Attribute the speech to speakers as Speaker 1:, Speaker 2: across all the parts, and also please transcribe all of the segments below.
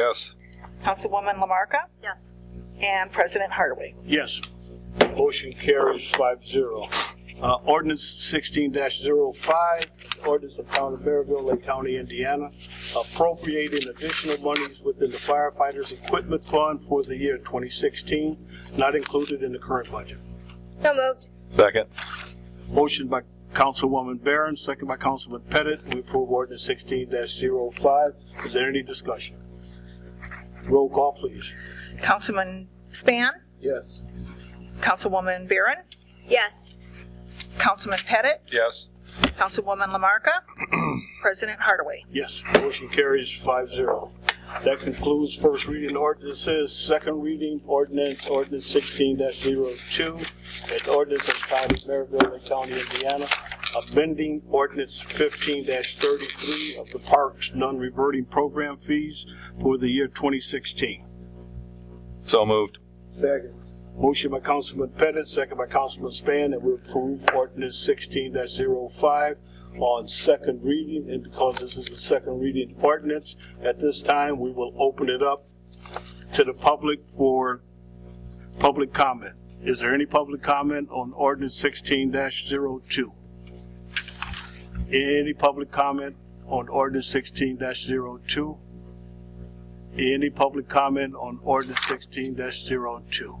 Speaker 1: Yes.
Speaker 2: Councilwoman Lamarca,
Speaker 3: Yes.
Speaker 2: and President Hardaway.
Speaker 4: Yes. Motion carries five zero. Uh, ordinance sixteen 5 ordinance of Town of Maryville, Lake County, Indiana, appropriating additional monies within the firefighters' equipment fund for the year twenty sixteen, not included in the current budget.
Speaker 3: So moved.
Speaker 1: Second.
Speaker 4: Motion by Councilwoman Barron, second by Councilman Pettit, we approve ordinance sixteen 5 Is there any discussion? Roll call, please.
Speaker 2: Councilman Span,
Speaker 4: Yes.
Speaker 2: Councilwoman Barron,
Speaker 3: Yes.
Speaker 2: Councilman Pettit,
Speaker 1: Yes.
Speaker 2: Councilwoman Lamarca, President Hardaway.
Speaker 4: Yes, motion carries five zero. That concludes first reading ordinances, second reading ordinance, ordinance sixteen 2 an ordinance of the County of Maryville, Lake County, Indiana, amending ordinance fifteen thirty-three of the Parks Non-Reverting Program Fees for the year twenty sixteen.
Speaker 1: So moved.
Speaker 4: Motion by Councilman Pettit, second by Councilman Span, that we approve ordinance sixteen 5 on second reading, and because this is a second reading ordinance, at this time, we will open it up to the public for public comment. Is there any public comment on ordinance sixteen 2 Any public comment on ordinance sixteen 2 Any public comment on ordinance sixteen 2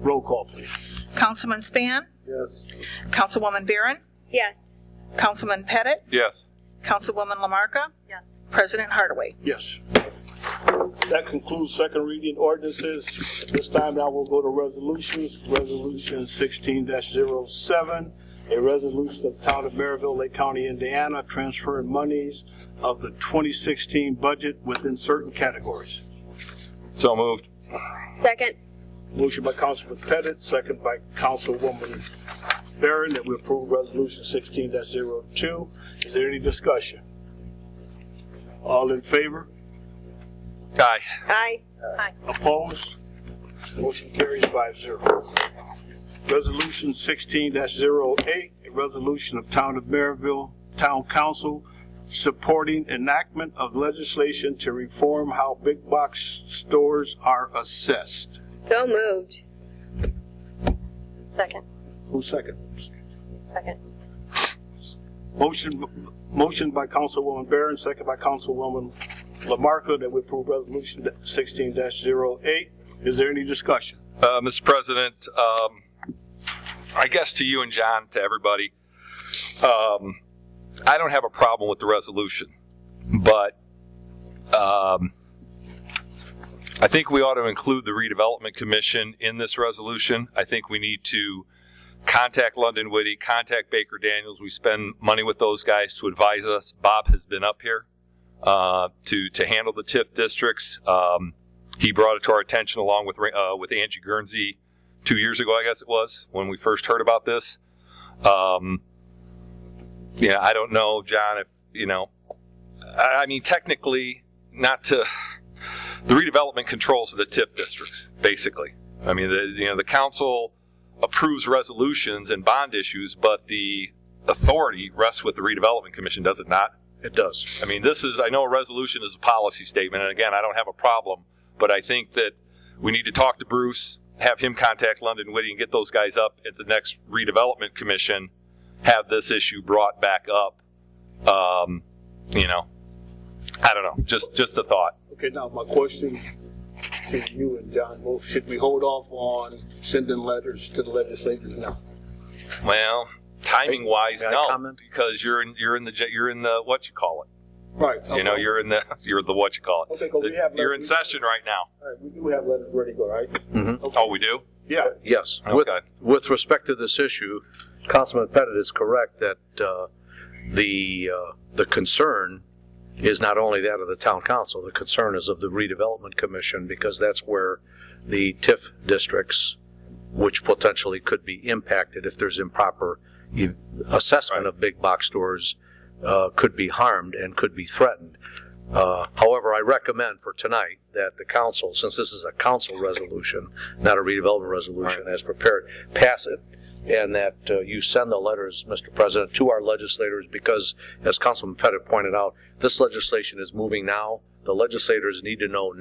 Speaker 4: Roll call, please.
Speaker 2: Councilman Span,
Speaker 4: Yes.
Speaker 2: Councilwoman Barron,
Speaker 3: Yes.
Speaker 2: Councilman Pettit,
Speaker 1: Yes.
Speaker 2: Councilwoman Lamarca,
Speaker 3: Yes.
Speaker 2: President Hardaway.
Speaker 4: Yes. That concludes second reading ordinances. This time now we'll go to resolutions. Resolution sixteen 7 a resolution of the Town of Maryville, Lake County, Indiana, transferring monies of the twenty sixteen budget within certain categories.
Speaker 1: So moved.
Speaker 3: Second.
Speaker 4: Motion by Councilman Pettit, second by Councilwoman Barron, that we approve Resolution sixteen 2 Is there any discussion? All in favor?
Speaker 1: Aye.
Speaker 3: Aye.
Speaker 4: Opposed? Motion carries five zero. Resolution sixteen 8 a resolution of Town of Maryville Town Council supporting enactment of legislation to reform how big box stores are assessed.
Speaker 3: So moved. Second.
Speaker 4: Who seconds?
Speaker 3: Second.
Speaker 4: Motion, motion by Councilwoman Barron, second by Councilwoman Lamarcus, that we approve resolution sixteen 8 Is there any discussion?
Speaker 1: Uh, Mr. President, um, I guess to you and John, to everybody, um, I don't have a problem with the resolution, but um, I think we ought to include the redevelopment commission in this resolution. I think we need to contact London Witty, contact Baker Daniels. We spend money with those guys to advise us. Bob has been up here uh, to to handle the TIF districts. Um, he brought it to our attention along with uh, with Angie Guernsey two years ago, I guess it was when we first heard about this. Um, yeah, I don't know, John. If you know, I, I mean, technically, not to the redevelopment controls the TIF districts, basically. I mean, the, you know, the council approves resolutions and bond issues, but the authority rests with the redevelopment commission, does it not?
Speaker 4: It does.
Speaker 1: I mean, this is, I know a resolution is a policy statement, and again, I don't have a problem, but I think that we need to talk to Bruce, have him contact London Witty and get those guys up at the next redevelopment commission, have this issue brought back up. Um, you know, I don't know, just, just a thought.
Speaker 4: Okay, now my question to you and John, well, should we hold off on sending letters to the legislators now?
Speaker 1: Well, timing wise,
Speaker 5: May I
Speaker 1: no,
Speaker 5: comment?
Speaker 1: because you're in, you're in the, j- you're in the, what you call it?
Speaker 4: Right.
Speaker 1: You know, you're in the, you're the, what you call it?
Speaker 4: Okay, 'cause we have-
Speaker 1: You're in session right now.
Speaker 4: All right, we do have letters ready to go, right?
Speaker 1: Oh, we do?
Speaker 4: Yeah.
Speaker 5: Yes. With,
Speaker 1: Okay.
Speaker 5: with respect to this issue, Councilman Pettit is correct that uh, the, uh, the concern is not only that of the town council, the concern is of the redevelopment commission because that's where the TIF districts, which potentially could be impacted if there's improper e- assessment of big box stores, uh, could be harmed and could be threatened. Uh, However, I recommend for tonight that the council, since this is a council resolution, not a redevelopment resolution as prepared, pass it, and that uh, you send the letters, Mr. President, to our legislators, because as Councilman Pettit pointed out, this legislation is moving now. The legislators need to know